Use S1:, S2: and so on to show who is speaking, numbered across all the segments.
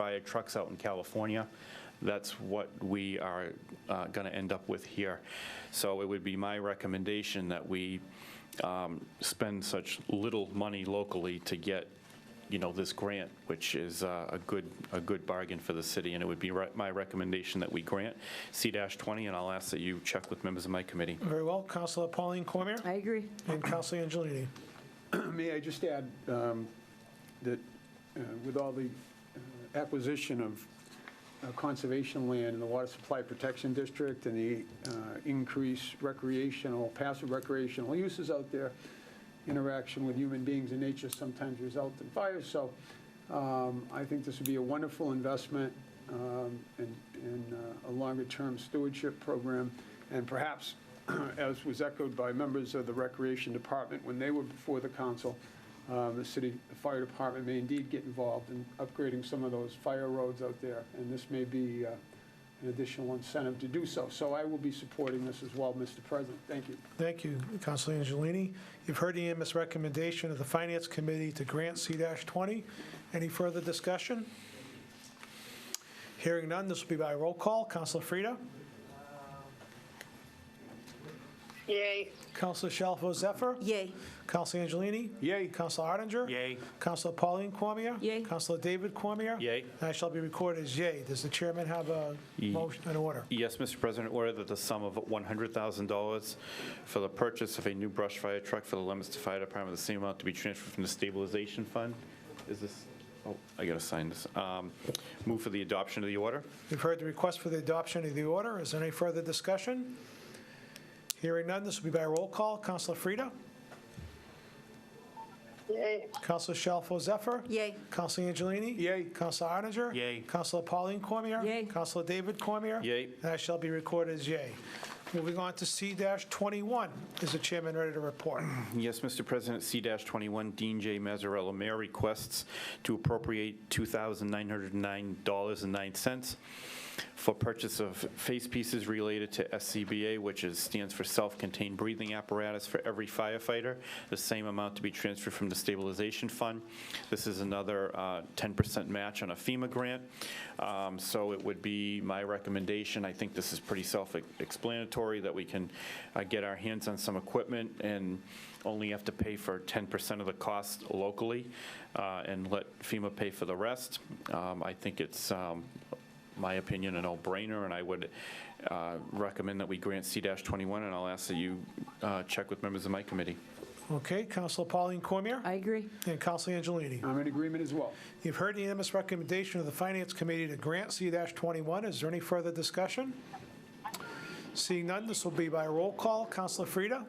S1: by trucks out in California. That's what we are going to end up with here. So it would be my recommendation that we um, spend such little money locally to get, you know, this grant, which is uh, a good, a good bargain for the city, and it would be re- my recommendation that we grant C-20, and I'll ask that you check with members of my committee.
S2: Very well, Counselor Pauline Cormier
S3: I agree.
S2: and Counselor Angelini.
S4: May I just add um, that uh, with all the uh, acquisition of uh, conservation land in the Water Supply Protection District and the uh, increased recreational, passive recreational uses out there, interaction with human beings and nature sometimes result in fires. So um, I think this would be a wonderful investment um, in in, uh, a longer-term stewardship program. And perhaps, as was echoed by members of the Recreation Department when they were before the council, um, the city fire department may indeed get involved in upgrading some of those fire roads out there. And this may be uh, an additional incentive to do so. So I will be supporting this as well, Mr. President. Thank you.
S2: Thank you, Counselor Angelini. You've heard the unanimous recommendation of the Finance Committee to grant C-20. Any further discussion? Hearing none, this will be by roll call. Counselor Frida?
S5: Yay.
S2: Counselor Shalfo Zephyr?
S3: Yay.
S2: Counselor Angelini?
S4: Yay.
S2: Counselor Arndinger?
S1: Yay.
S2: Counselor Pauline Cormier?
S3: Yay.
S2: Counselor David Cormier?
S1: Yay.
S2: And I shall be recorded as yay. Does the chairman have a
S1: Ye-
S2: motion, an order?
S1: Yes, Mr. President, order that the sum of $100,000 for the purchase of a new brush fire truck for the Leominster Fire Department, the same amount to be transferred from the stabilization fund. Is this, oh, I got to sign this. Um, Move for the adoption of the order.
S2: You've heard the request for the adoption of the order. Is there any further discussion? Hearing none, this will be by roll call. Counselor Frida?
S5: Yay.
S2: Counselor Shalfo Zephyr?
S3: Yay.
S2: Counselor Angelini?
S4: Yay.
S2: Counselor Arndinger?
S1: Yay.
S2: Counselor Pauline Cormier?
S3: Yay.
S2: Counselor David Cormier?
S1: Yay.
S2: And I shall be recorded as yay. Moving on to C-21. Is the chairman ready to report?
S1: Yes, Mr. President, C-21, Dean J. Mazzarella, Mayor requests to appropriate $2,909.09 for purchase of face pieces related to SCBA, which is, stands for Self-Contained Breathing Apparatus for every firefighter, the same amount to be transferred from the stabilization fund. This is another uh, 10% match on a FEMA grant, Um, so it would be my recommendation, I think this is pretty self-explanatory, that we can uh, get our hands on some equipment and only have to pay for 10% of the cost locally uh, and let FEMA pay for the rest. Um, I think it's um, my opinion, a no-brainer, and I would uh, recommend that we grant C-21, and I'll ask that you uh, check with members of my committee.
S2: Okay, Counselor Pauline Cormier?
S3: I agree.
S2: And Counselor Angelini?
S4: I'm in agreement as well.
S2: You've heard the unanimous recommendation of the Finance Committee to grant C-21. Is there any further discussion? Seeing none, this will be by roll call. Counselor Frida?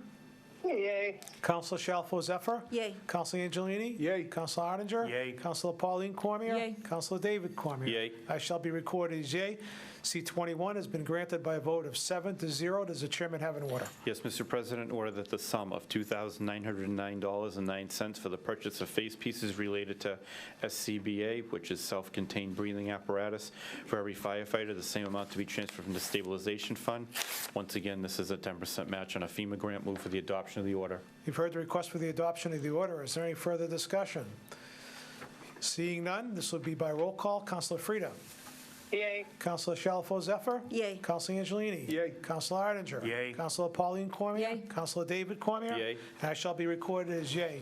S5: Yay.
S2: Counselor Shalfo Zephyr?
S3: Yay.
S2: Counselor Angelini?
S4: Yay.
S2: Counselor Arndinger?
S1: Yay.
S2: Counselor Pauline Cormier?
S3: Yay.
S2: Counselor David Cormier?
S1: Yay.
S2: I shall be recorded as yay. C-21 has been granted by a vote of seven to zero. Does the chairman have an order?
S1: Yes, Mr. President, order that the sum of $2,909.09 for the purchase of face pieces related to SCBA, which is self-contained breathing apparatus for every firefighter, the same amount to be transferred from the stabilization fund. Once again, this is a 10% match on a FEMA grant. Move for the adoption of the order.
S2: You've heard the request for the adoption of the order. Is there any further discussion? Seeing none, this will be by roll call. Counselor Frida?
S5: Yay.
S2: Counselor Shalfo Zephyr?
S3: Yay.
S2: Counselor Angelini?
S4: Yay.
S2: Counselor Arndinger?
S1: Yay.
S2: Counselor Pauline Cormier?
S3: Yay.
S2: Counselor David Cormier?
S1: Yay.
S2: And I shall be recorded as yay.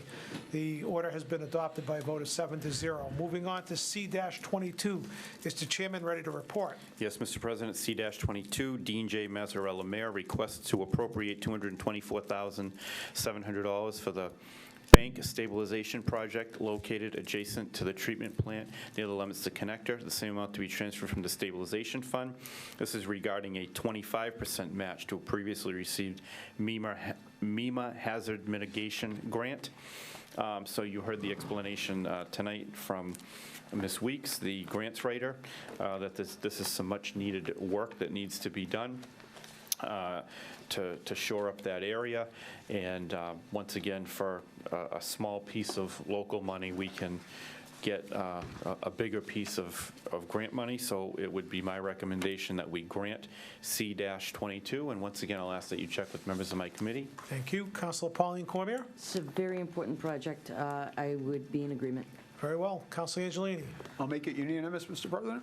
S2: The order has been adopted by a vote of seven to zero. Moving on to C-22. Is the chairman ready to report?
S1: Yes, Mr. President, C-22, Dean J. Mazzarella, Mayor, requests to appropriate $224,700 for the bank stabilization project located adjacent to the treatment plant near the Leominster Connector, the same amount to be transferred from the stabilization fund. This is regarding a 25% match to a previously received MEMA ha- MEMA E Hazard Mitigation Grant. Um, So you heard the explanation uh, tonight from Ms. Weeks, the grants writer, uh, that this, this is some much-needed work that needs to be done uh, to, to shore up that area. And uh, once again, for a, a small piece of local money, we can get uh, a a bigger piece of, of grant money. So it would be my recommendation that we grant C-22. And once again, I'll ask that you check with members of my committee.
S2: Thank you. Counselor Pauline Cormier?
S3: It's a very important project. Uh, I would be in agreement.
S2: Very well. Counselor Angelini?
S4: I'll make it unanimous, Mr. President.